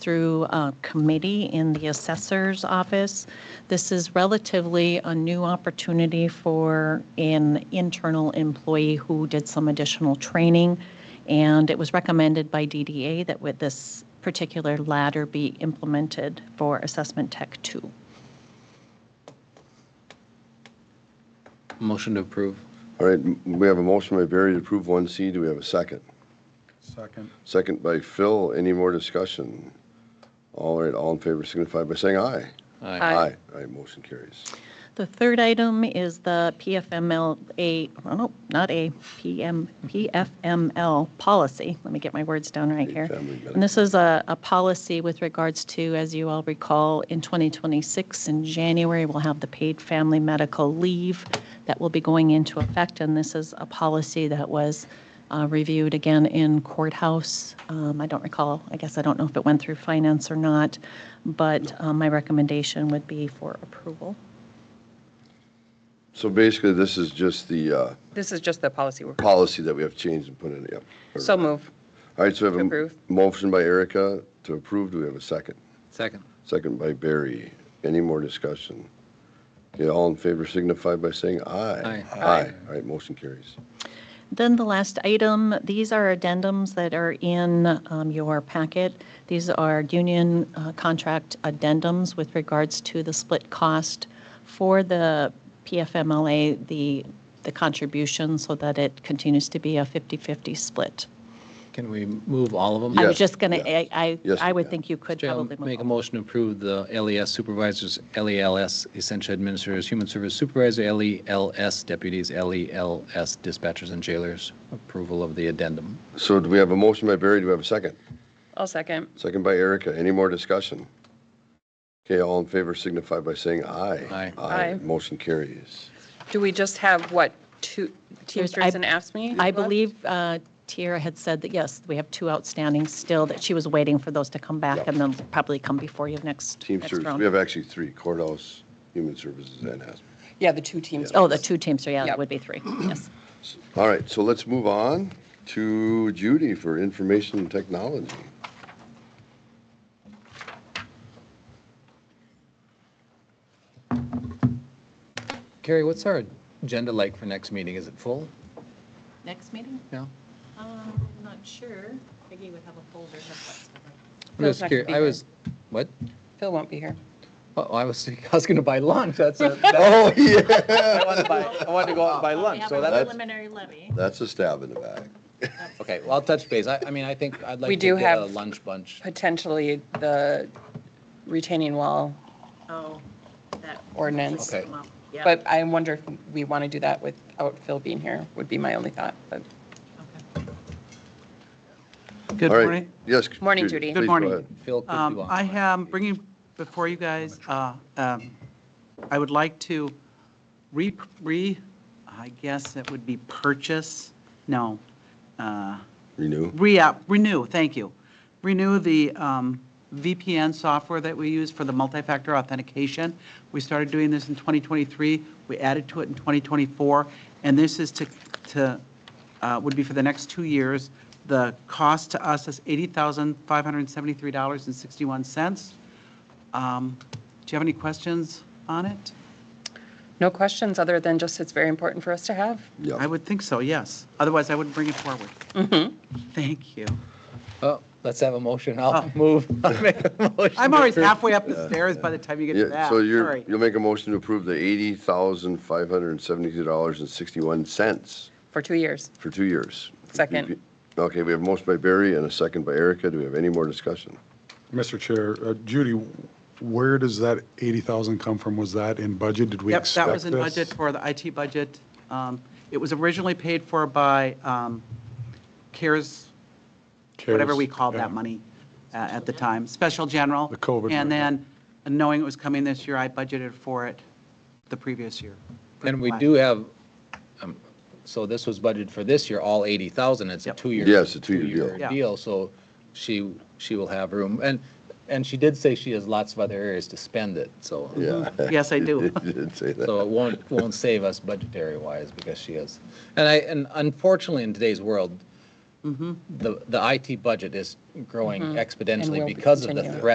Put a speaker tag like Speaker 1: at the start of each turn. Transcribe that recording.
Speaker 1: through a committee in the assessor's office. This is relatively a new opportunity for an internal employee who did some additional training. And it was recommended by DDA that with this particular ladder be implemented for Assessment Tech 2.
Speaker 2: Motion to approve.
Speaker 3: All right, m- we have a motion by Barry to approve 1C. Do we have a second?
Speaker 4: Second.
Speaker 3: Second by Phil. Any more discussion? All right, all in favor signify by saying aye.
Speaker 2: Aye.
Speaker 3: All right, motion carries.
Speaker 1: The third item is the PFMLA, oh, no, not A, PM, PFML policy. Let me get my words down right here.
Speaker 3: Family
Speaker 1: And this is a, a policy with regards to, as you all recall, in 2026, in January, we'll have the paid family medical leave that will be going into effect. And this is a policy that was uh, reviewed again in courthouse. Um, I don't recall, I guess I don't know if it went through finance or not, but uh, my recommendation would be for approval.
Speaker 3: So basically, this is just the uh,
Speaker 5: This is just the policy we're,
Speaker 3: policy that we have changed and put in, yep.
Speaker 5: so move.
Speaker 3: All right, so we have a m-
Speaker 5: Approve.
Speaker 3: motion by Erica to approve. Do we have a second?
Speaker 2: Second.
Speaker 3: Second by Barry. Any more discussion? Okay, all in favor signify by saying aye.
Speaker 2: Aye.
Speaker 3: Aye. All right, motion carries.
Speaker 1: Then the last item, these are addendums that are in um, your packet. These are union uh, contract addendums with regards to the split cost for the PFMLA, the, the contribution, so that it continues to be a 50/50 split.
Speaker 2: Can we move all of them?
Speaker 1: I
Speaker 3: Yeah.
Speaker 1: was
Speaker 3: Yes,
Speaker 1: just going to,
Speaker 3: yes.
Speaker 1: I,
Speaker 3: Yes,
Speaker 1: I would
Speaker 3: yeah.
Speaker 1: think you could
Speaker 2: Jay, I'll
Speaker 1: probably. move
Speaker 2: make a
Speaker 1: on.
Speaker 2: motion to approve the LES supervisors, LELS essential administrators, human service supervisor, LELS deputies, LELS dispatchers and jailers. Approval of the addendum.
Speaker 3: So do we have a motion by Barry? Do we have a second?
Speaker 5: I'll second.
Speaker 3: Second by Erica. Any more discussion? Okay, all in favor signify by saying
Speaker 2: Aye.
Speaker 3: aye.
Speaker 5: Aye.
Speaker 3: Motion carries.
Speaker 5: Do we just have, what, two Teamsters
Speaker 1: I-
Speaker 5: and AFSCME?
Speaker 1: I
Speaker 5: left?
Speaker 1: believe uh, Tiara had said that, yes, we have two outstanding still, that she was waiting for those to come back and then probably come before you next. next
Speaker 3: Teamsters,
Speaker 1: round.
Speaker 3: we have actually three, courthouse, human services, and hazmat.
Speaker 5: Yeah, the two Teamsters.
Speaker 1: Oh, the two Teamster, yeah, it
Speaker 5: Yep.
Speaker 1: would be three, yes.
Speaker 3: All right, so let's move on to Judy for information and technology.
Speaker 2: Carrie, what's our agenda like for next meeting? Is it full?
Speaker 1: Next meeting?
Speaker 2: No?
Speaker 1: Um, not sure. Peggy would have a folder.
Speaker 2: I'm just
Speaker 5: Phil's not gonna
Speaker 2: curious.
Speaker 5: be
Speaker 2: I
Speaker 5: here.
Speaker 2: was, what?
Speaker 5: Phil won't be here.
Speaker 2: Oh, I was, I was going to buy lunch. That's, a-
Speaker 3: Oh, yeah,
Speaker 6: I wanted to buy, I wanted to go out and buy lunch,
Speaker 1: Oh,
Speaker 6: so
Speaker 3: That's-
Speaker 6: that,
Speaker 1: preliminary levy.
Speaker 3: that's a stab in the back.
Speaker 2: okay, well, I'll touch base. I, I mean, I think I'd like
Speaker 5: We
Speaker 2: to
Speaker 5: do
Speaker 2: get a
Speaker 5: have-
Speaker 2: lunch bunch.
Speaker 5: Potentially the retaining wall,
Speaker 1: Oh, that.
Speaker 5: Ordinance.
Speaker 2: Okay.
Speaker 1: Yeah.
Speaker 5: but I wonder if we want to do that without Phil being here, would be my only thought, but.
Speaker 6: good
Speaker 3: All right,
Speaker 6: morning.
Speaker 3: Yes.
Speaker 5: Morning, Judy.
Speaker 3: please
Speaker 6: Good
Speaker 3: go
Speaker 6: morning.
Speaker 3: ahead.
Speaker 2: Phil, could you
Speaker 6: Um,
Speaker 2: on?
Speaker 6: I am bringing before you guys, uh, um, I would like to re, re, I guess it would be purchase, no, uh,
Speaker 3: Renew.
Speaker 6: re-app, renew, thank you. Renew the um, VPN software that we use for the multi-factor authentication. We started doing this in 2023, we added to it in 2024, and this is to, to, uh, would be for the next two years. The cost to us is $80,573.61. Um, Do you have any questions on it?
Speaker 5: No questions, other than just it's very important for us to have.
Speaker 3: Yeah.
Speaker 6: I would think so, yes. Otherwise, I wouldn't bring it forward. Thank you.
Speaker 2: Oh, let's have a motion. I'll move. I'll make a motion.
Speaker 6: Ah. I'm always halfway up the stairs by the time you get to
Speaker 3: Yeah,
Speaker 6: that.
Speaker 3: so you're,
Speaker 6: Sorry.
Speaker 3: you'll make a motion to approve the $80,573.61
Speaker 5: For two years.
Speaker 3: for two years.
Speaker 5: Second.
Speaker 3: Okay, we have a motion by Barry and a second by Erica. Do we have any more discussion?
Speaker 7: Mr. Chair, uh, Judy, where does that 80,000 come from? Was that in budget? Did we
Speaker 6: Yep,
Speaker 7: expect
Speaker 6: that
Speaker 7: this?
Speaker 6: was in budget for the IT budget. Um, It was originally paid for by um, CARES, whatever
Speaker 7: CARES,
Speaker 6: we called
Speaker 7: yeah.
Speaker 6: that money uh, at the time, Special General.
Speaker 7: The COVID
Speaker 6: And
Speaker 7: money.
Speaker 6: then, knowing it was coming this year, I budgeted for it the previous year.
Speaker 2: And we do have, um, so this was budgeted for this year, all 80,000. It's a
Speaker 6: Yep.
Speaker 2: two-year.
Speaker 3: Yes, a two-year deal.
Speaker 2: two-year
Speaker 6: Yeah.
Speaker 2: Deal, so she, she will have room. And, and she did say she has lots of other areas to spend it, so.
Speaker 3: Yeah.
Speaker 6: Yes, I do.
Speaker 3: You did say that.
Speaker 2: So it won't, won't save us budgetary wise because she is. And I, and unfortunately in today's world, the, the IT budget is growing
Speaker 5: And
Speaker 6: Mm-hmm.
Speaker 2: exponentially
Speaker 5: will
Speaker 2: because of the
Speaker 5: continue.
Speaker 2: threat